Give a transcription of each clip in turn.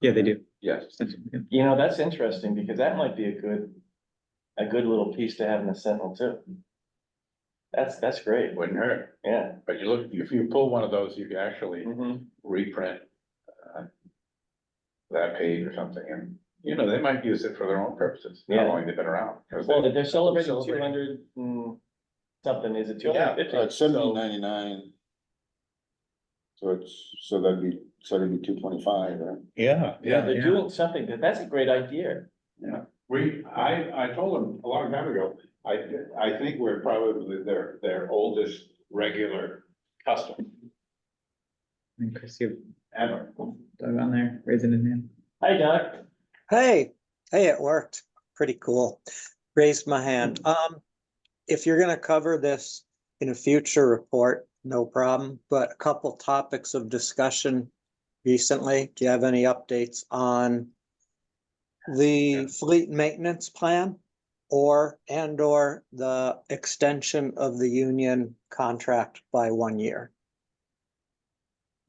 Yeah, they do. Yes. You know, that's interesting because that might be a good, a good little piece to have in the Sentinel too. That's, that's great. It wouldn't hurt, Yeah. but you look, if you pull one of those, you can actually Mhm. reprint uh, that page or something, and, you know, they might use it for their own purposes, how Yeah. long they've been around. 'cause Well, they- they're celebrating two Celebrating. hundred and something, is it two Yeah, hundred fifty? Uh, seventy ninety-nine. So it's, so that'd be, so that'd be two twenty-five, right? Yeah, Yeah, they're doing something, but that's a great idea. We, I, I told them a long time ago, I, I think we're probably their, their oldest regular custom And Christie ever. dug on there, raising his hand. Hi, Doc. Hey, hey, it worked. Pretty cool. Raised my hand. Um, if you're gonna cover this in a future report, no problem, but a couple topics of discussion recently, do you have any updates on the fleet maintenance plan or, and or the extension of the union contract by one year?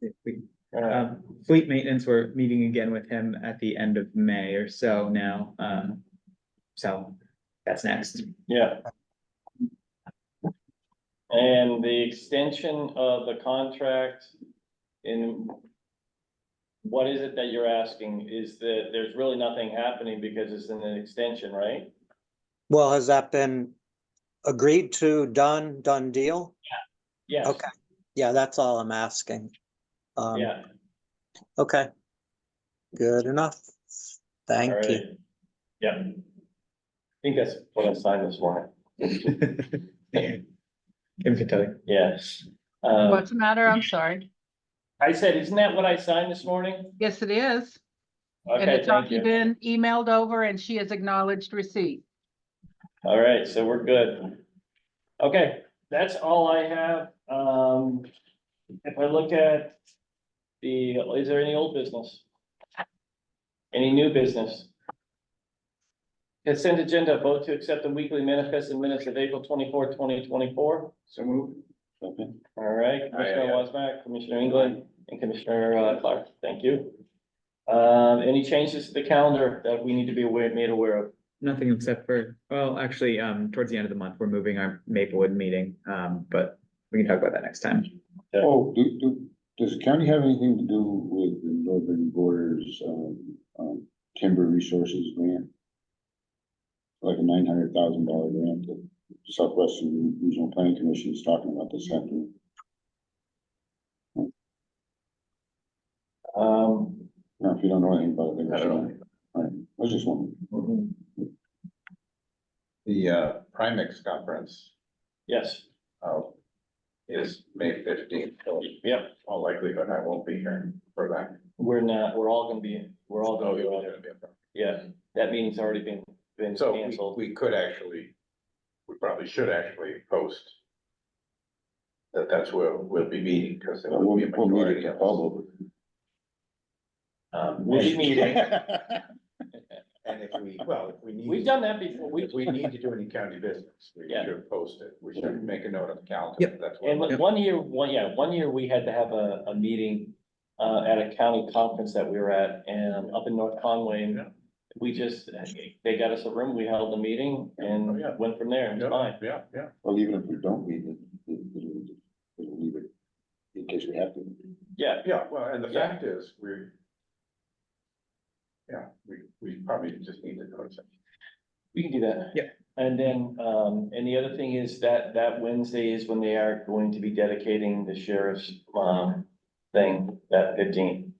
If we- Uh, Um, fleet maintenance, we're meeting again with him at the end of May or so now, um, so that's next. Yeah. And the extension of the contract in what is it that you're asking? Is that there's really nothing happening because it's an extension, right? Well, has that been agreed to, done, done deal? Yes. Okay, yeah, that's all I'm asking. Um, Yeah. Okay. Good enough. Thank All you. right. Yeah. I think that's what I signed this morning. Kim can tell you. Yes. Uh, What's the matter? I'm sorry. I said, isn't that what I signed this morning? Yes, it is. And Okay, it's thank already you. been emailed over and she has acknowledged receipt. All right, so we're good. Okay, that's all I have. Um, if I look at the, is there any old business? Any new business? Consent agenda, vote to accept the weekly manifest and minutes of April 24, 2024. So move. Okay. All right, Commissioner yeah. Wasback, Commissioner England, and Commissioner uh, Clark, thank you. Um, any changes to the calendar that we need to be aware, made aware of? Nothing except for, well, actually, um, towards the end of the month, we're moving our Maplewood meeting, um, but we can talk about that next time. Oh, do, do, does the county have anything to do with the northern borders, um, um, timber resources grant? Like a nine hundred thousand dollar grant that Southwestern Regional Planning Commission is talking about this afternoon. Um, Now, if you don't know anything about it. I don't know. Right, I was just wondering. The uh, Primex conference yes. uh, is May fifteenth. Yep. All likelihood, I won't be here for that. We're not, we're all gonna be, we're all gonna be, Although on it's it. gonna be a problem. yeah, that meeting's already been, been So we- canceled. we could actually, we probably should actually post that that's where we'll be meeting, because there We'll, will we'll be a meet majority at of the us. bubble. Um, we'll be meeting, And if we, well, if we need. we've done that before, we, If we need to do any county business, we Yeah. should post it, we should make a note on the calendar. Yep. That's and what, one year, one, yeah, one year we had to have a, a meeting uh, at a county conference that we were at, and up in North Conway, and Yeah. we just, they got us a room, we held a meeting Oh, and yeah. went from there, it's fine. yeah, yeah, yeah. Well, even if we don't meet it, it- it'll, it'll leave it in case we have to. Yeah, Yeah, well, and the Yeah. fact is, we're. Yeah, we, we probably just need to notice it. we can do that. Yeah. And then, um, and the other thing is that, that Wednesday is when they are going to be dedicating the sheriff's, um, thing, that fifteen.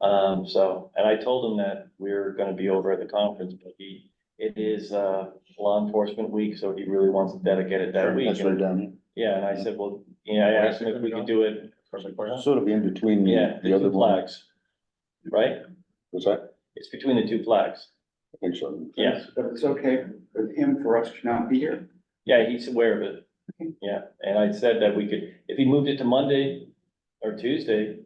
Um, so, and I told him that we're gonna be over at the conference, but he, it is, uh, law enforcement week, so he really wants to dedicate it that Sure, week. That's right down here. Yeah, and I said, well, you know, I asked him if we could do it, From the courthouse. Sort of in between yeah, the the, the other two one. flags. Right? Was that? It's between the two flags. I think so. Yeah, But it's okay with him for us to not be here. yeah, he's aware of it. Yeah, and I said that we could, if he moved it to Monday or Tuesday,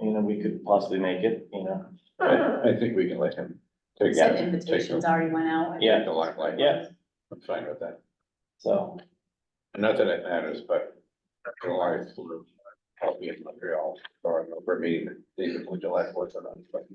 you know, we could possibly make it, you know. I, I think we can let him take. Said take the- invitations already went out. Yeah. Take the limelight. Yeah. I'm fine with that. So, Not that it matters, but July is, I'll be in Montreal, or we're meeting, David, would you like what's on, but